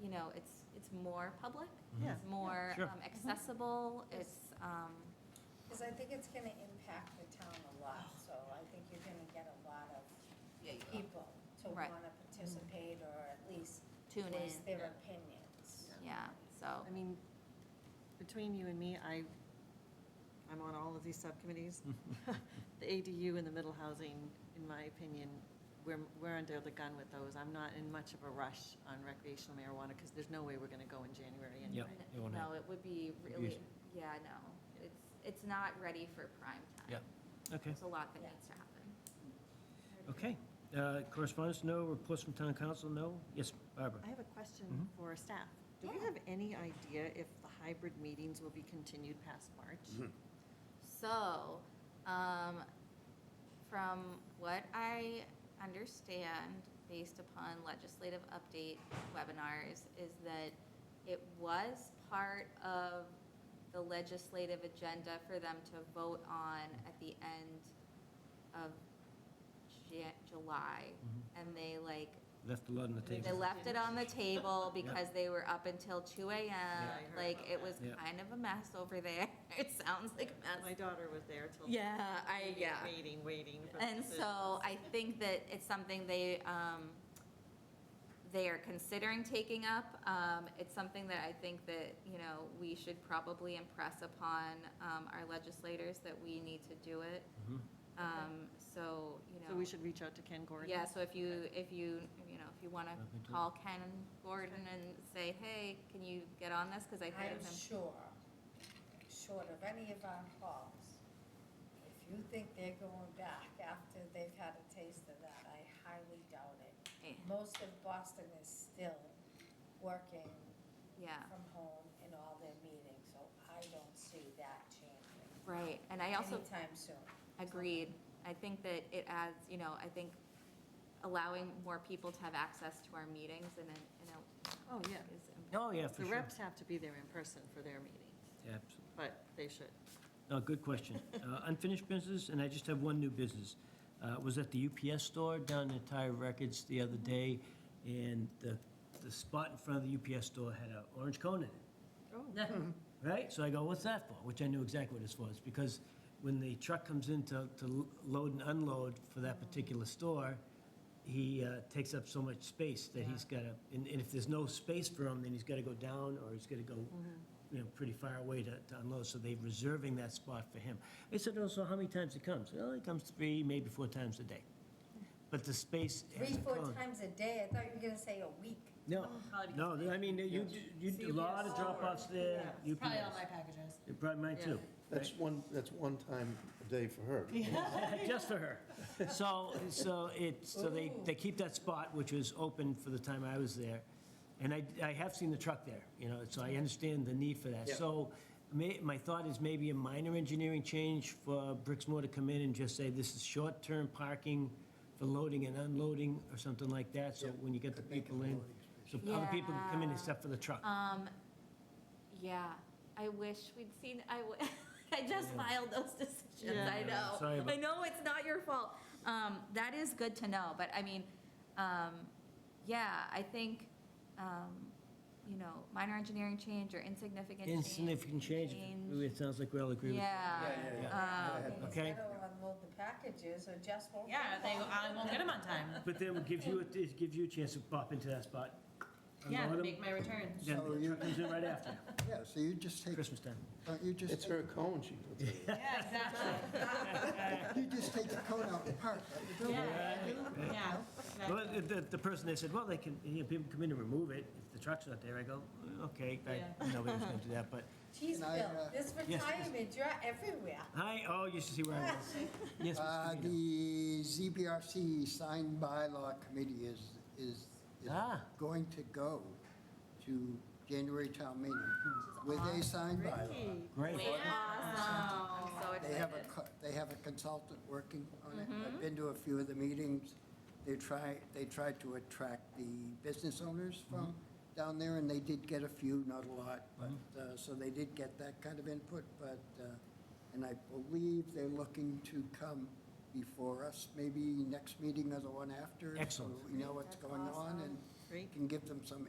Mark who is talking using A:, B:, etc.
A: you know, it's, it's more public,
B: Yeah.
A: it's more
C: Sure. Mm-hmm.
A: um, accessible, it's, um,
D: Because I think it's gonna impact the town a lot,
A: Oh.
D: so I think you're gonna get a lot of people to
A: Right.
D: wanna participate or at least
A: tune
D: voice
A: in,
D: their opinions.
A: yeah, so,
B: I mean, between you and me, I, I'm on all of these subcommittees. The ADU and the middle housing, in my opinion, we're, we're under the gun with those. I'm not in much of a rush on recreational marijuana because there's no way we're going to go in January anyway.
A: n-
C: it won't
A: no, it would be really, yeah, no, it's, it's not ready for prime time.
C: Yeah. Okay,
A: There's a lot that
D: Yeah.
A: needs to happen.
C: okay. Uh, Correspondence, no. Reports from town council, no. Yes, Barbara?
B: I have a question
C: Mhm.
B: for staff. Do we
A: Yeah.
B: have any idea if the hybrid meetings will be continued past March?
A: So, um, from what I understand, based upon legislative update webinars, is that it was part of the legislative agenda for them to vote on at the end of Ja- July. And they like,
C: Mm-hmm. Left a lot on the
A: they
C: table.
A: left it on the table because they were up until two AM.
B: I heard
A: Like,
B: about
A: it was
C: that. Yeah.
A: kind of a mess over there. It sounds like a mess.
B: My daughter was there till.
A: Yeah, I, yeah.
B: Waiting, waiting. for
A: And
B: the-
A: so I think that it's something they, um, they are considering taking up. Um, it's something that I think that, you know, we should probably impress upon, um, our legislators that we need to do it.
C: Mhm.
A: Um, so, you know.
B: So we should reach out to Ken Gordon?
A: Yeah, so if you, if you, you know, if you want
C: Nothing
A: to
C: to it.
A: call Ken Gordon and say, hey, can you get on this? Because I think
D: I'm
A: it's im-
D: sure, short of any of our calls, if you think they're going back after they've had a taste of that, I highly doubt
A: eh,
D: it. Most of Boston is still working
A: yeah,
D: from home in all their meetings, so I don't see that changing
A: right. And I also
D: anytime soon.
A: Agreed. I think that it adds, you know, I think allowing more people to have access to our meetings and, then, you know,
B: Oh, yeah.
A: is important.
C: Oh, yeah, for
B: The
C: sure.
B: reps have to be there in person for their meetings,
C: Absolutely.
B: but they should.
C: No, good question. Uh, Unfinished business, and I just have one new business. Uh, Was at the UPS store down in Tire Records the other day, and the, the spot in front of the UPS store had an orange cone in it. right? So I go, what's that for? Which I knew exactly what it's for. It's because when the truck comes in to, to load and unload for that particular store, he uh, takes up so much space that he's got to, and, and if there's no space for him, then he's got to go down or he's got to go, you know, pretty far away to, to unload. So they're reserving that spot for him. I said, oh, so how many times he comes? Well, he comes three, maybe four times a day. But the space. has
D: Three,
C: a
D: four
C: cone.
D: times a day, I thought you were gonna say a week.
C: No, no, I mean, you, you, a lot of drop-offs there. UPS.
E: Probably all my packages.
C: It brought mine too.
F: That's one, that's one time a day for her.
C: Just for her. So, so it, so they, they keep that spot, which was open for the time I was there. And I, I have seen the truck there, you know, so I understand the need for that.
F: Yeah.
C: So may, my thought is maybe a minor engineering change for Brixmore to come in and just say, this is short-term parking for loading and unloading or something like that, so
F: Yeah.
C: when you get the people in, so other people can come in except for the truck.
A: Um, yeah, I wish we'd seen, I, w- I just
C: Yeah.
A: filed those decisions,
B: Yeah.
A: I
C: Yeah, sorry
A: know.
C: about-
A: I know it's not your fault. Um, that is good to know, but I mean, um, yeah, I think, um, you know, minor engineering change or insignificant change.
C: Insignificant change, it sounds like we all agree with that.
A: Yeah. Um,
C: Okay.
D: Instead of unload the packages or just won't.
E: Yeah, they, I won't get them on time.
C: But then it gives you, a- it gives you a chance to pop into that spot.
E: Yeah,
C: unload 'em,
E: make my returns.
C: Then
G: So
C: the
G: you-
C: truck comes in right after,
G: Yeah, so you just take,
C: Christmas time.
G: don't you just,
F: It's her cone, she puts it in.
E: Yeah, exactly.
G: you just take the cone out and park at the door.
E: Yeah, yeah. exactly.
C: Well, the- the, the person, they said, well, they can, you know, people come in and remove it, if the truck's not there, I go, okay, I,
E: Yeah.
C: nobody was gonna do that, but,
D: Geez,
G: And I,
D: Bill,
G: uh,
D: this
C: yes.
D: retirement, you're everywhere.
C: hi, oh, you should see where I was. Yes,
G: Uh,
C: Mr. Vito.
G: The ZBRC signed bylaw committee is, is is
C: Ah.
G: going to go to January town meeting with a signed bylaw.
C: Great,
A: Awesome, I'm so
G: They
A: excited.
G: have a, co- they have a consultant working on it. I've been to a few of the meetings. They try, they tried to attract the business owners from down there, and they did get a few, not a lot, but, uh, so they did get that kind of input, but, uh, and I believe they're looking to come before us, maybe next meeting or the one after. so
C: Excellent.
G: We know what's going on and
B: Great.
G: can give them some